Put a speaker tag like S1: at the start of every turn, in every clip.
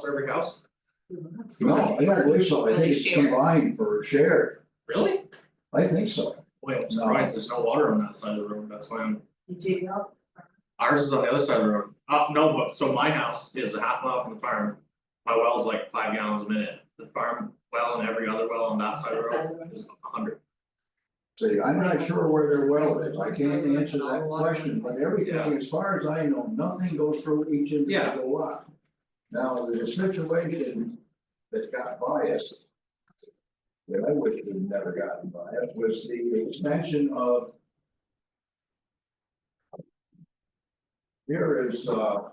S1: for every house?
S2: No, I don't believe so, I think it's combined for shared,
S1: Really?
S2: I think so.
S1: Boy, I'm surprised there's no water on that side of the road, that's why I'm,
S3: You dig up,
S1: ours is on the other side of the road, uh, no, but, so my house is a half mile from the farm. My well's like five gallons a minute, the farm well and every other well on that side of the road is a hundred.
S2: See, I'm not sure where their well is, I can't answer that question, but everything, as far as I know, nothing goes through each individual lot. Now, there's a situation that got biased. That I wish it had never gotten biased, was the expansion of. Here is, uh,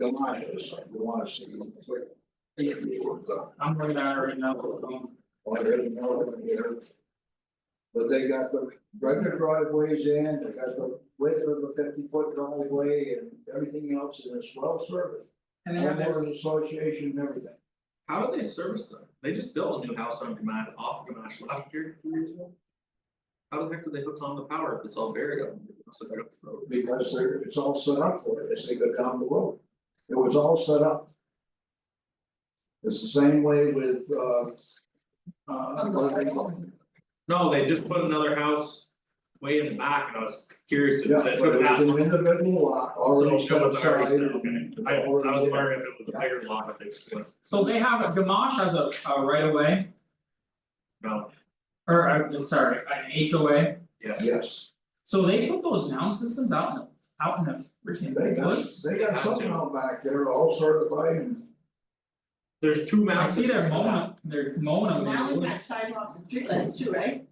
S2: Delicious, if you wanna see. It was, uh,
S1: I'm looking at it right now, um,
S2: well, I didn't know it here. But they got the regular driveways in, they got the width of the fifty foot driveway and everything else and it's well serviced.
S4: And they have
S2: Homeowners
S4: this,
S2: association and everything.
S1: how do they service them? They just built a new house on Gamash, off Gamash last year, two years ago. How the heck do they hook on the power if it's all buried up, must have been up the road?
S2: Because they're, it's all set up for it as they go down the road. It was all set up. It's the same way with, uh. Uh, what do they call it?
S1: No, they just put another house way in the back and I was curious if
S2: Yeah,
S1: they
S2: but
S1: took
S2: it
S1: that.
S2: was an
S1: one.
S2: individual lot already
S1: So
S2: set
S1: it was already
S2: aside.
S1: set, okay,
S2: and-
S1: I I was
S2: already there.
S1: wondering if it was a bigger lot that they split,
S4: so they have a Gamache has a a right of way,
S1: no,
S4: or uh, I'm sorry, an HOA,
S1: yeah.
S2: Yes.
S4: so they put those noun systems out in the, out in the
S2: They
S4: freaking
S2: got,
S4: woods.
S2: they got something out back there, all certified and
S1: There's two
S4: I
S1: mountains.
S4: see they're mowing, they're mowing them
S3: now
S4: in the
S3: we got
S4: woods,
S3: sidewalks and streetlights too, right?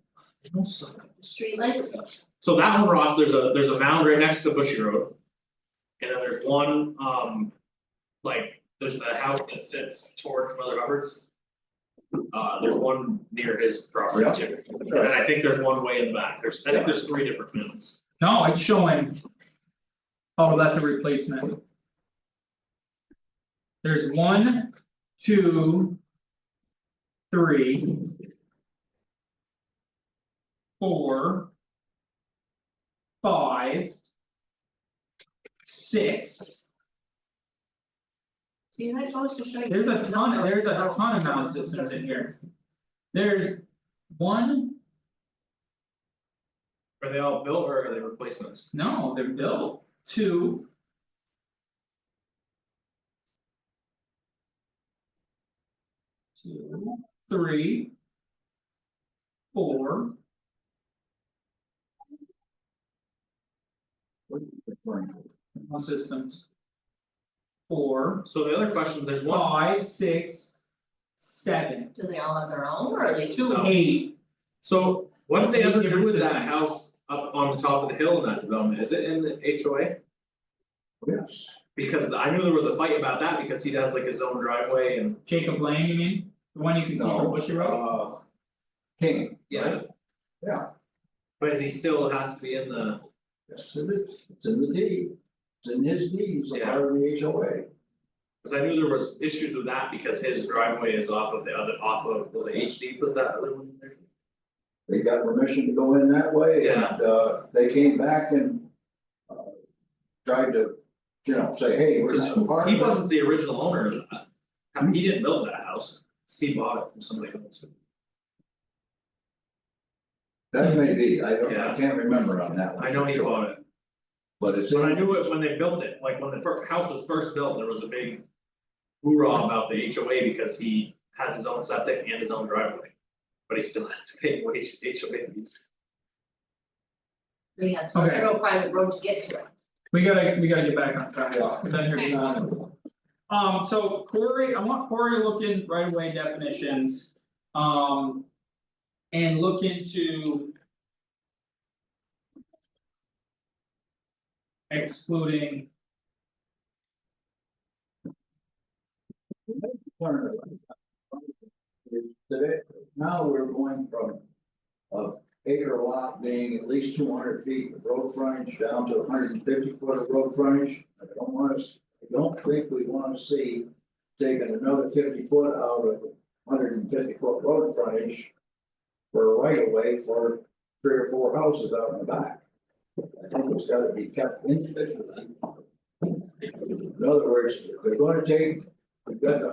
S3: Streetlights,
S1: So that one, Ross, there's a, there's a mound right next to Bushy Road. And then there's one, um, like, there's the house that sits towards Mother Hubbard's. Uh, there's one near his property
S2: Yeah.
S1: too, and then I think there's one way in the back, there's, I think there's three different mounds.
S4: no, it's showing. Oh, that's a replacement. There's one, two. Three. Four. Five. Six.
S3: see, that goes to show you.
S4: There's a ton, there's a ton of mound systems in here. There's one,
S1: Are they all built or are they replacements?
S4: no, they're built, two. Two, three. Four,
S2: what are you referring to?
S4: mound systems. Four,
S1: So the other question, there's one
S4: five, six, seven,
S3: Do they all have their own or are they two?
S1: No.
S4: eight,
S1: So what did they ever do with that
S4: Different systems.
S1: house up on the top of the hill in that development, is it in the HOA?
S2: Yes,
S1: Because I knew there was a fight about that because he has like his own driveway and
S4: Jacob Lane, you mean? The one you can see from
S2: no,
S4: Bushy Road?
S2: uh. King,
S1: yeah.
S2: Yeah.
S1: But is he still has to be in the,
S2: yes, it is, it's in the deed, it's in his deeds, a part of the HOA.
S1: cause I knew there was issues with that because his driveway is off of the other, off of, was it HD put that other one in there?
S2: They got permission to go in that way and, uh, they came back and. uh, Tried to, you know, say, hey, we're not a
S1: Cause
S2: part of
S1: he
S2: it."
S1: wasn't the original owner of that, I mean, he didn't build that house, he bought it from somebody else.
S2: That may be, I don't,
S1: Yeah.
S2: I can't remember on that one.
S1: I know he bought it,
S2: But it's. in-
S1: but I knew it when they built it, like when the first house was first built, there was a big. Hoorah about the HOA because he has his own septic and his own driveway. But he still has to pay what H- HOA fees.
S3: They have some
S4: Okay.
S3: real private road to get to it.
S4: We gotta, we gotta get back on track, we've been here too long. Um, so Corey, I want Corey to look in right away definitions, um. And look into. Excluding,
S2: turnaround. Today, now we're going from. A acre lot being at least two hundred feet of road frontage down to hundred and fifty foot of road frontage. I don't want us, I don't think we wanna see taking another fifty foot out of hundred and fifty foot road frontage. For a right of way for three or four houses out in the back. I think it's gotta be kept individually. In other words, they're gonna take, we've got the